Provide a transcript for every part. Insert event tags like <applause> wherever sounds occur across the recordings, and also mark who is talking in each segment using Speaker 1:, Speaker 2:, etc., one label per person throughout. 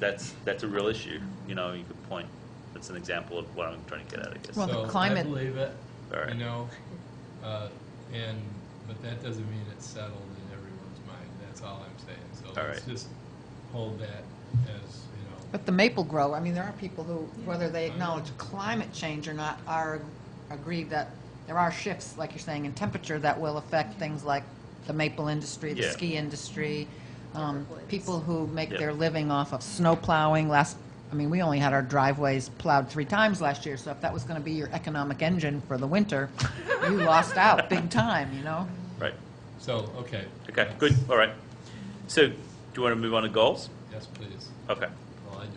Speaker 1: that's, that's a real issue, you know, you could point, that's an example of what I'm trying to get at, I guess.
Speaker 2: Well, the
Speaker 3: So,
Speaker 2: climate-
Speaker 3: I believe it,
Speaker 1: All right.
Speaker 3: you know, uh, and, but that doesn't mean it's settled in everyone's mind, that's all I'm saying. So
Speaker 1: All
Speaker 3: let's
Speaker 1: right.
Speaker 3: just hold that as, you know,
Speaker 2: But the maple grower, I mean, there are people who, whether they acknowledge climate change or not, are, agree that there are shifts, like you're saying, in temperature that will affect things like the maple industry, the
Speaker 1: Yeah.
Speaker 2: ski industry, um,
Speaker 4: Different ways.
Speaker 2: people who make
Speaker 1: Yeah.
Speaker 2: their living off of snow plowing. Last, I mean, we only had our driveways plowed three times last year, so if that was going to be your economic engine for the winter, you lost out big time, you know?
Speaker 1: Right,
Speaker 3: so, okay.
Speaker 1: okay, good, all right. So, do you want to move on to goals?
Speaker 3: Yes, please,
Speaker 1: Okay,
Speaker 3: well, I do.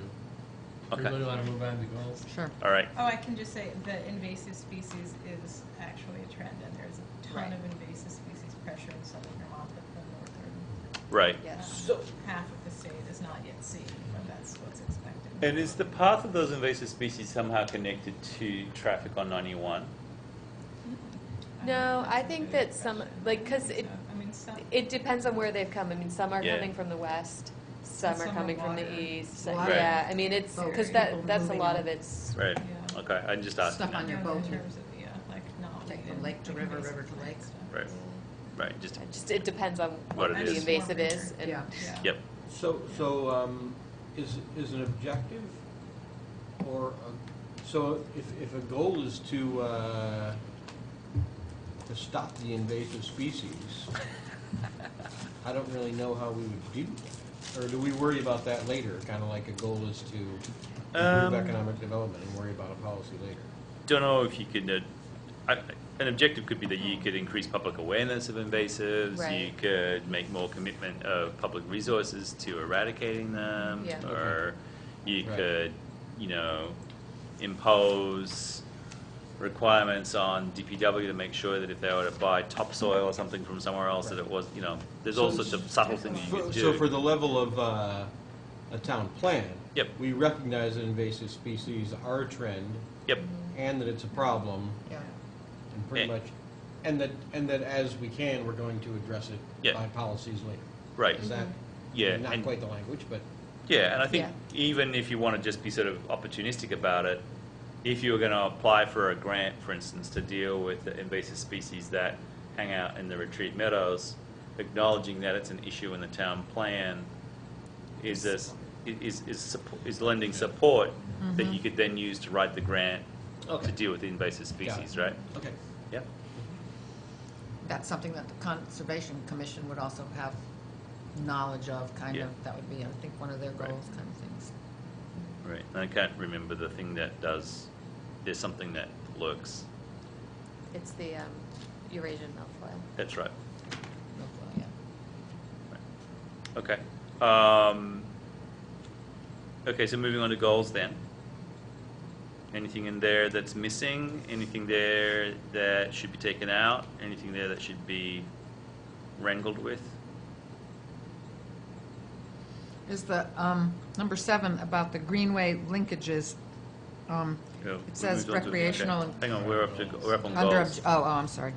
Speaker 1: Okay.
Speaker 3: Everybody wanna move on to goals?
Speaker 2: Sure.
Speaker 1: all right,
Speaker 4: Oh, I can just say that invasive species is actually a trend, and there's a ton
Speaker 2: Right.
Speaker 4: of invasive species pressure in southern Vermont, but the northern um,
Speaker 1: right.
Speaker 5: Yes.
Speaker 1: So,
Speaker 4: half of the state is not yet seen, but that's what's expected.
Speaker 1: and is the path of those invasive species somehow connected to traffic on 91?
Speaker 5: No, I think that some, like, because it,
Speaker 4: uh, I mean, some.
Speaker 5: it depends on where they've come. I mean, some are
Speaker 1: Yeah.
Speaker 5: coming from the west, some
Speaker 4: And
Speaker 5: are
Speaker 4: some are
Speaker 5: coming from
Speaker 4: water.
Speaker 5: the east. so-
Speaker 2: Water.
Speaker 5: Yeah, I mean, it's,
Speaker 2: Boat
Speaker 5: because
Speaker 2: people
Speaker 5: that, that's a
Speaker 2: moving
Speaker 5: lot
Speaker 2: on.
Speaker 5: of it's,
Speaker 1: Right,
Speaker 4: Yeah.
Speaker 1: okay, I'm just asking
Speaker 2: Stuff on
Speaker 1: that.
Speaker 2: your
Speaker 4: Yeah,
Speaker 2: boat.
Speaker 4: In terms of, yeah, like not.
Speaker 2: Like from
Speaker 4: native,
Speaker 2: lake to
Speaker 4: like
Speaker 2: river,
Speaker 4: invasive
Speaker 2: river to
Speaker 4: plant
Speaker 2: lake.
Speaker 4: stuff.
Speaker 1: Right, right, just,
Speaker 5: it just, it depends on
Speaker 1: What
Speaker 5: what
Speaker 1: it
Speaker 5: the
Speaker 1: is.
Speaker 5: invasive is. and-
Speaker 2: Yeah.
Speaker 4: Yeah.
Speaker 1: yep,
Speaker 6: So, so um, is, is an objective or, a- so if, if a goal is to, uh, to stop the invasive species, I don't really know how we would do that. Or do we worry about that later, kind of like a goal is to
Speaker 1: Um,
Speaker 6: improve economic development and worry about a policy later?
Speaker 1: don't know if you could, uh, I- an objective could be that you could increase public awareness of invasives, you
Speaker 5: Right.
Speaker 1: could make more commitment of public resources to eradicating them,
Speaker 5: Yeah.
Speaker 1: or you
Speaker 6: Right.
Speaker 1: could, you know, impose requirements on DPW to make sure that if they were to buy topsoil or something from somewhere else, that it was, you know, there's all
Speaker 6: So-
Speaker 1: sorts of subtle things you
Speaker 6: For-
Speaker 1: could do.
Speaker 6: So for the level of uh, a town plan?
Speaker 1: Yep.
Speaker 6: We recognize that invasive species are a trend
Speaker 1: Yep,
Speaker 6: and that it's a problem.
Speaker 2: Yeah.
Speaker 6: And pretty
Speaker 1: Yeah.
Speaker 6: much, and that, and that as we can, we're going to address
Speaker 1: Yeah.
Speaker 6: it by policies later.
Speaker 1: right,
Speaker 6: Is that?
Speaker 1: yeah.
Speaker 6: Not
Speaker 1: and-
Speaker 6: quite the language, but
Speaker 1: Yeah, and I think
Speaker 5: Yeah.
Speaker 1: even if you want to just be sort of opportunistic about it, if you were going to apply for a grant, for instance, to deal with the invasive species that hang out in the retreat meadows, acknowledging that it's an issue in the town plan is this, is, is, suppo- is lending support that you could then use to write the grant to
Speaker 6: Okay.
Speaker 1: deal with the invasive species, right?
Speaker 6: okay.
Speaker 1: Yeah.
Speaker 2: That's something that the Conservation Commission would also have knowledge of, kind
Speaker 1: Yeah.
Speaker 2: of, that would be, I think, one of their
Speaker 1: Right.
Speaker 2: goals, kind of things.
Speaker 1: Right. And I can't remember the thing that does, there's something that lurks.
Speaker 5: It's the um, Eurasian milfoil.
Speaker 1: That's right.
Speaker 2: Hopefully, yeah.
Speaker 1: Okay. Um, okay, so moving on to goals then. Anything in there that's missing? Anything there that should be taken out? Anything there that should be wrangled with?
Speaker 2: Is the, um, number seven, about the greenway linkages, um,
Speaker 1: Yeah, we
Speaker 2: it says
Speaker 1: moved on to- okay.
Speaker 2: recreational, and-
Speaker 1: Hang on, we're up to, we're up on
Speaker 2: under,
Speaker 1: goals.
Speaker 2: obj- oh, oh, I'm sorry.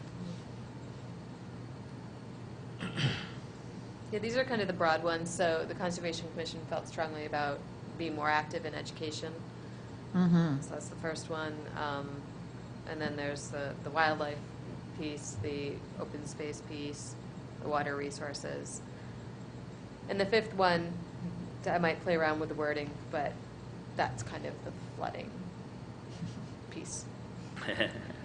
Speaker 5: Yeah, these are kind of the broad ones, so the Conservation Commission felt strongly about being more active in education.
Speaker 2: Mm-hmm,
Speaker 5: So that's the first one. Um, and then there's the, the wildlife piece, the open space piece, the water resources. And the fifth one, I might play around with the wording, but that's kind of the flooding piece.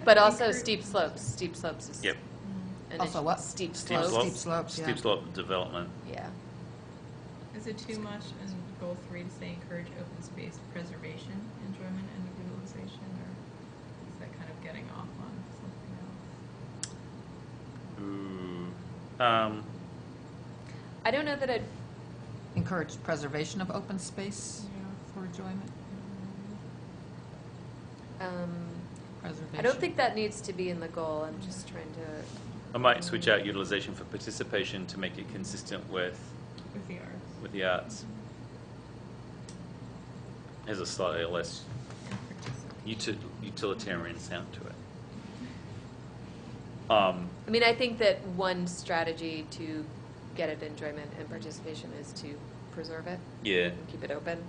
Speaker 5: But also steep slopes, steep slopes is.
Speaker 1: <laughs> Yep.
Speaker 4: Mm-hmm.
Speaker 5: an
Speaker 2: Also
Speaker 5: issue.
Speaker 2: what?
Speaker 5: Steep
Speaker 1: Steep
Speaker 5: slopes.
Speaker 1: slope,
Speaker 2: Steep slopes, yeah.
Speaker 1: Steep slope development.
Speaker 5: Yeah.
Speaker 4: Is it too much in goal three to say encourage open space preservation, enjoyment, and utilization, or is that kind of getting off on something else?
Speaker 1: Ooh. Um,
Speaker 5: I don't know that I'd,
Speaker 2: encourage preservation of open space
Speaker 4: Yeah.
Speaker 2: for enjoyment,
Speaker 5: um,
Speaker 2: preservation.
Speaker 5: I don't think that needs to be in the goal. I'm just trying to,
Speaker 1: I might switch out utilization for participation to make it consistent with
Speaker 4: With the arts,
Speaker 1: with the arts. Has a slightly less
Speaker 4: and participate.
Speaker 1: uti- utilitarian sound to it. Um,
Speaker 5: I mean, I think that one strategy to get at enjoyment and participation is to preserve it
Speaker 1: yeah,
Speaker 5: and keep it open.